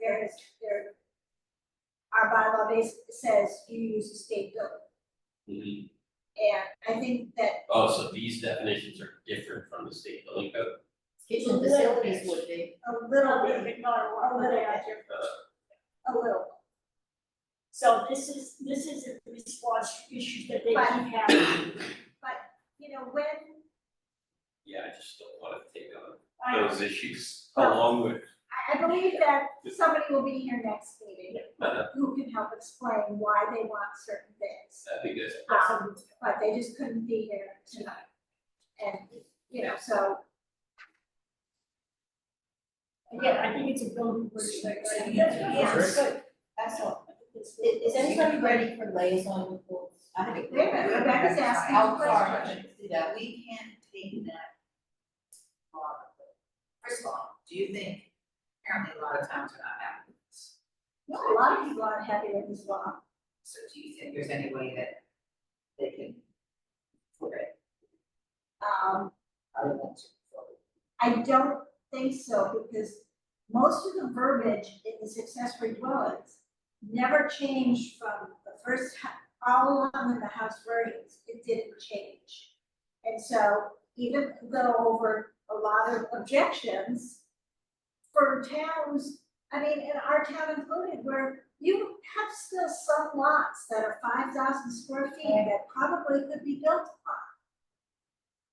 there is, there. Our bylaw basically says you use the state building, Mhm. and I think that, Oh, so these definitions are different from the state building code? Kitchen facilities would be, a little bit, a little, bit, Uh, a little. So this is, this is a response to issues that they keep Right. having. You know, when, Yeah, I just don't want to take on I- those issues along with, I, I believe that somebody will be here next meeting uh, who can help explain why they want certain things. I think that's, Um, but they just couldn't be here tonight. And, you know, so, Again, I think it's a building which is like. Yeah, it's good, that's all. is, is anybody ready for liaison reports? I have a- Wait a minute, Rebecca's asking Oh, a sorry, question. I didn't see that, we can't take that. law. First of all, do you think, apparently a lot of towns are not happy with this, a lot of people aren't happy with this law. so do you think there's any way that they can flip it, Um, other than to flip it? I don't think so, because most of the verbiage in these accessory dwellings never changed from the first, hou- all along in the house versions, it didn't change. And so even though over a lot of objections for towns, I mean, in our town included, where you have still some lots that are five thousand square feet that probably could be built upon.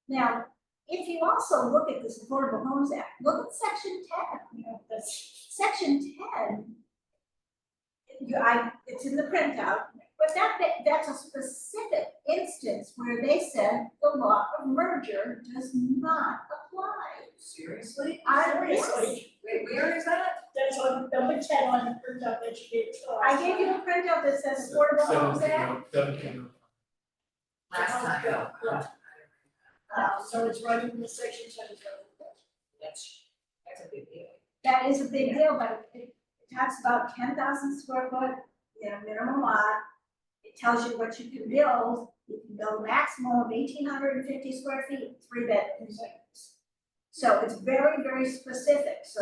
Now, if you also look at this Affordable Homes Act, look at section ten, you know, the s- section ten. You, I, it's in the printout, but that, that- that's a specific instance where they said the law of merger does not apply. Seriously? I, yes, Seriously, Wait, where is that? that's on number ten on the printout that you gave to us. I gave you the printout that says Affordable Homes Act, Last time. Yeah. Uh, so it's right in the section ten. That's, that's a big deal. that is a big deal, but it it talks about ten thousand square foot, you know, minimum lot. It tells you what you can build, you can build a maximum of eighteen hundred and fifty square feet, three bedrooms. So it's very, very specific, so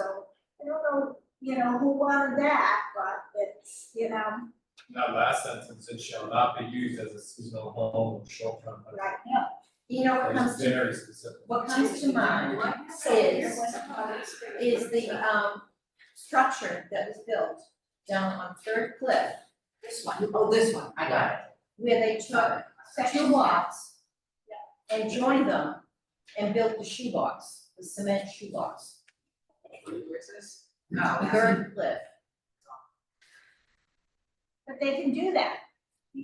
I don't know, you know, who wanted that, but it's, you know, That last sentence, it shall not be used as a seasonal home or short-term rental. right now. You know, what comes It's to, very specific. What comes to mind is, is the, um, structure that was built down on Third Cliff. This one. Oh, this one, I got it. Where they took two lots and joined them and built the shoebox, the cement shoebox, Third Cliff. but they can do that.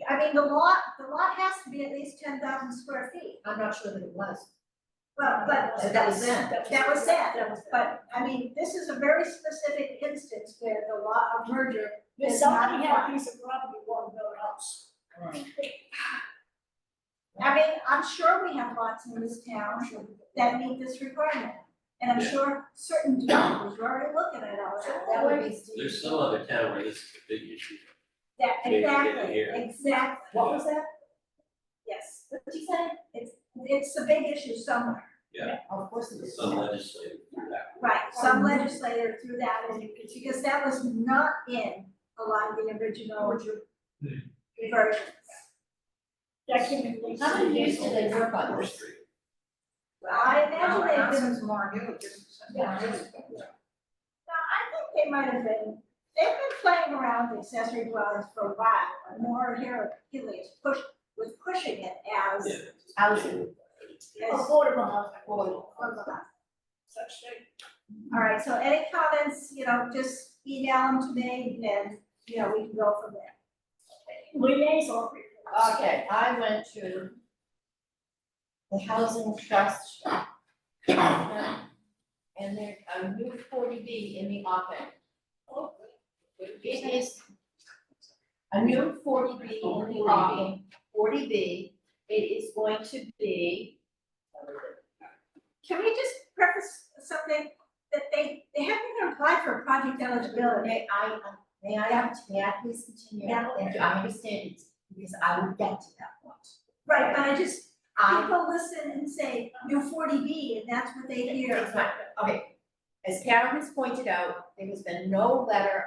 I mean, the lot, the lot has to be at least ten thousand square feet, I'm not sure that it was. well, but That was then. That was that. sad, but I mean, this is a very specific instance where the law of merger If is not somebody had a applied. piece of property, one built a house. I mean, I'm sure we have lots in this town that meet this requirement. And I'm Yeah. sure certain developers are already looking at all that. That would be. there's some other town where this is a big issue. That, Maybe they didn't exactly, hear. exactly, What was that? yes. What did you say? It's a big issue somewhere, Of course it is. Some legislative through that. right? Some legislator threw that in, because that was not in a lot of the original versions. That came in late. How many years did they work on Fourth this? Street. Well, I imagine they've been Yeah. No, I think they might have been, they've been playing around with accessory dwellings for a while, and more here, Healy is push, was pushing it as. Yeah. Housing. as- Affordable housing. Such thing. All right, so any comments, you know, just email them to me, and, you know, we can go from there. Uh, Liaison. Okay, I went to the housing trust. And there's a new forty B in the offing. It is a new forty B in the offing, forty B, it is going to be. Can we just preface something, that they, they haven't even applied for project eligibility? May I, may I, may I please continue? Yeah. Thank you, I understand it, because I will get to that point. Right, but I just, I people listen and say, you forty B, and that's what they hear. It's not- okay, as Karen has pointed out, there has been no letter